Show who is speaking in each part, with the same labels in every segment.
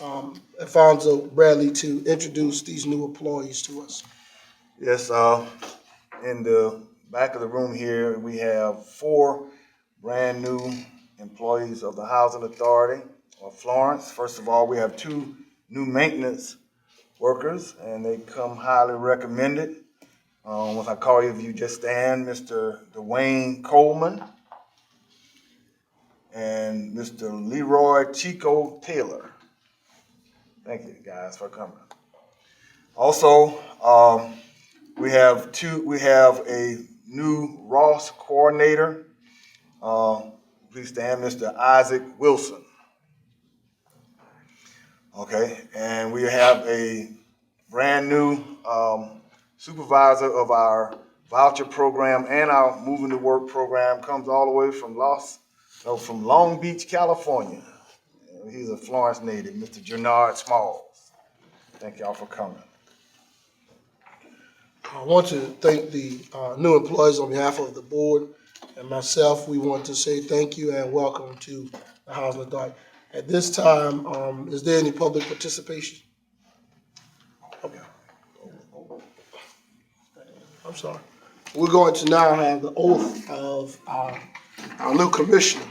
Speaker 1: um, Alfonso Bradley to introduce these new employees to us.
Speaker 2: Yes, uh, in the back of the room here, we have four brand-new employees of the Housing Authority of Florence. First of all, we have two new maintenance workers, and they come highly recommended. Um, once I call you, if you just stand, Mr. Dwayne Coleman and Mr. Leroy Chico Taylor. Thank you guys for coming. Also, um, we have two, we have a new Ross coordinator. Uh, please stand, Mr. Isaac Wilson. Okay, and we have a brand new um, supervisor of our voucher program and our moving to work program comes all the way from Los, no, from Long Beach, California. He's a Florence native, Mr. Gennard Smalls. Thank y'all for coming.
Speaker 1: I want to thank the uh, new employees on behalf of the board and myself. We want to say thank you and welcome to the Housing Authority. At this time, um, is there any public participation? Okay. I'm sorry. We're going to now have the oath of our, our new commissioner.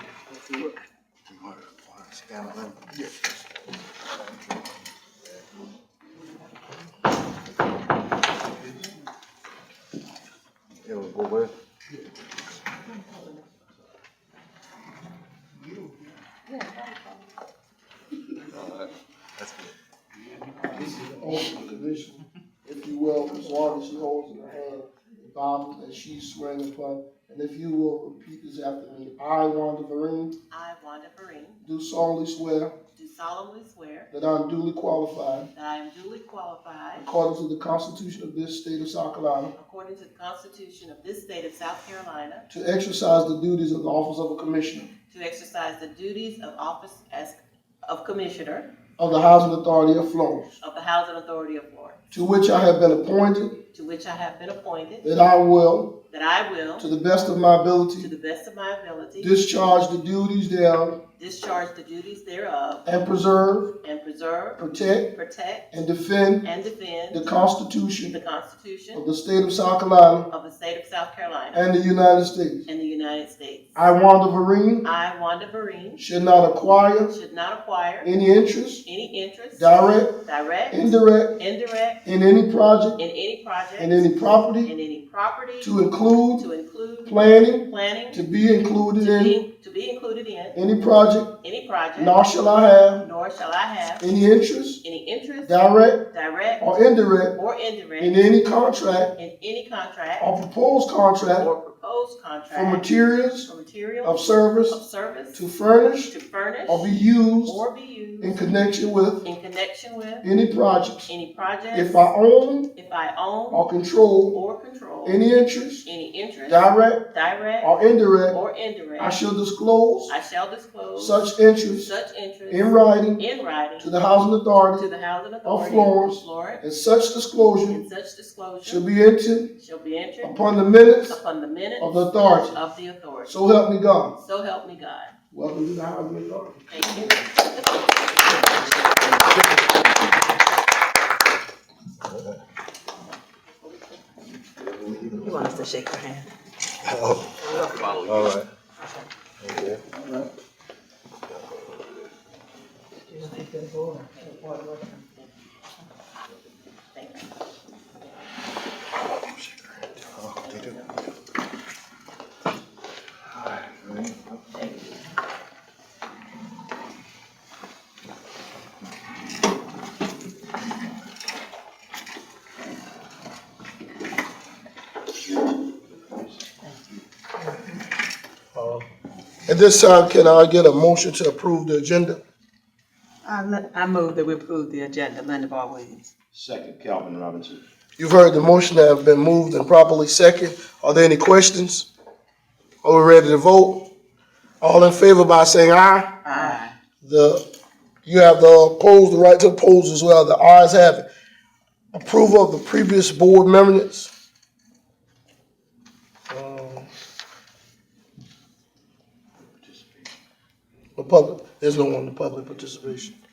Speaker 2: It was go with. That's good.
Speaker 1: This is the oath of the commission, if you will, the sword that she holds in her hand, the Bible that she's swearing upon. And if you will repeat this after me, I, Wanda Vereen,
Speaker 3: I, Wanda Vereen,
Speaker 1: do solemnly swear
Speaker 3: do solemnly swear
Speaker 1: that I am duly qualified,
Speaker 3: that I am duly qualified,
Speaker 1: according to the Constitution of this state of South Carolina,
Speaker 3: according to the Constitution of this state of South Carolina,
Speaker 1: to exercise the duties of the office of a commissioner
Speaker 3: to exercise the duties of office as of Commissioner
Speaker 1: of the Housing Authority of Florence,
Speaker 3: of the Housing Authority of Florida,
Speaker 1: to which I have been appointed,
Speaker 3: to which I have been appointed,
Speaker 1: that I will,
Speaker 3: that I will,
Speaker 1: to the best of my
Speaker 3: to
Speaker 1: ability,
Speaker 3: the best of my ability,
Speaker 1: discharge the duties thereof
Speaker 3: discharge the duties thereof,
Speaker 1: and preserve,
Speaker 3: and preserve,
Speaker 1: protect,
Speaker 3: protect,
Speaker 1: and defend
Speaker 3: and
Speaker 1: the
Speaker 3: defend the
Speaker 1: Constitution of
Speaker 3: Constitution
Speaker 1: the state of South Carolina
Speaker 3: of the state of South Carolina
Speaker 1: and the United States.
Speaker 3: and the United States.
Speaker 1: I, Wanda Vereen,
Speaker 3: I, Wanda Vereen,
Speaker 1: should not acquire
Speaker 3: should not acquire
Speaker 1: any interest,
Speaker 3: any interest,
Speaker 1: direct,
Speaker 3: direct,
Speaker 1: indirect,
Speaker 3: indirect,
Speaker 1: in any project
Speaker 3: in any project,
Speaker 1: and any
Speaker 3: in
Speaker 1: property
Speaker 3: any property,
Speaker 1: to include
Speaker 3: to include
Speaker 1: planning
Speaker 3: planning,
Speaker 1: to be included
Speaker 3: to
Speaker 1: in
Speaker 3: be, to be included in
Speaker 1: any project,
Speaker 3: any project,
Speaker 1: nor shall I have
Speaker 3: nor shall I have
Speaker 1: any interest,
Speaker 3: any interest,
Speaker 1: direct
Speaker 3: direct,
Speaker 1: or indirect,
Speaker 3: or
Speaker 1: in
Speaker 3: indirect,
Speaker 1: any contract
Speaker 3: in any contract
Speaker 1: or proposed contract
Speaker 3: or proposed
Speaker 1: for
Speaker 3: contract
Speaker 1: materials
Speaker 3: or
Speaker 1: of
Speaker 3: material of
Speaker 1: service
Speaker 3: service
Speaker 1: to furnish
Speaker 3: to furnish
Speaker 1: or be used
Speaker 3: or be
Speaker 1: in
Speaker 3: used
Speaker 1: connection with
Speaker 3: in connection with
Speaker 1: any projects.
Speaker 3: any project,
Speaker 1: If I own
Speaker 3: if I own
Speaker 1: or control
Speaker 3: or control
Speaker 1: any interest,
Speaker 3: any interest,
Speaker 1: direct
Speaker 3: direct,
Speaker 1: or indirect,
Speaker 3: or indirect,
Speaker 1: I shall disclose
Speaker 3: I shall disclose
Speaker 1: such interest
Speaker 3: such interest
Speaker 1: in writing
Speaker 3: in writing
Speaker 1: to the housing authority
Speaker 3: to the housing authority
Speaker 1: Florence.
Speaker 3: Florence,
Speaker 1: and such disclosure
Speaker 3: and such
Speaker 1: shall
Speaker 3: disclosure
Speaker 1: be entered
Speaker 3: shall be entered
Speaker 1: upon the minutes
Speaker 3: upon the minutes
Speaker 1: of the authority.
Speaker 3: of the authority.
Speaker 1: So help me God.
Speaker 3: So help me God.
Speaker 1: Welcome to the Housing Authority.
Speaker 3: Thank you.
Speaker 4: You want us to shake your hand?
Speaker 2: All right. Okay.
Speaker 3: Thank you.
Speaker 2: Oh, they do.
Speaker 1: At this time, can I get a motion to approve the agenda?
Speaker 4: I, le- I move that we approve the agenda, Linda Bar Williams.
Speaker 5: Second, Calvin Robinson.
Speaker 1: You've heard the motion that have been moved and properly second. Are there any questions? Are we ready to vote? All in favor by saying aye?
Speaker 4: Aye.
Speaker 1: The, you have the opposed, the right to oppose as well. The ayes have it. Approval of the previous board minutes? Um, The public, there's no one in the public participation.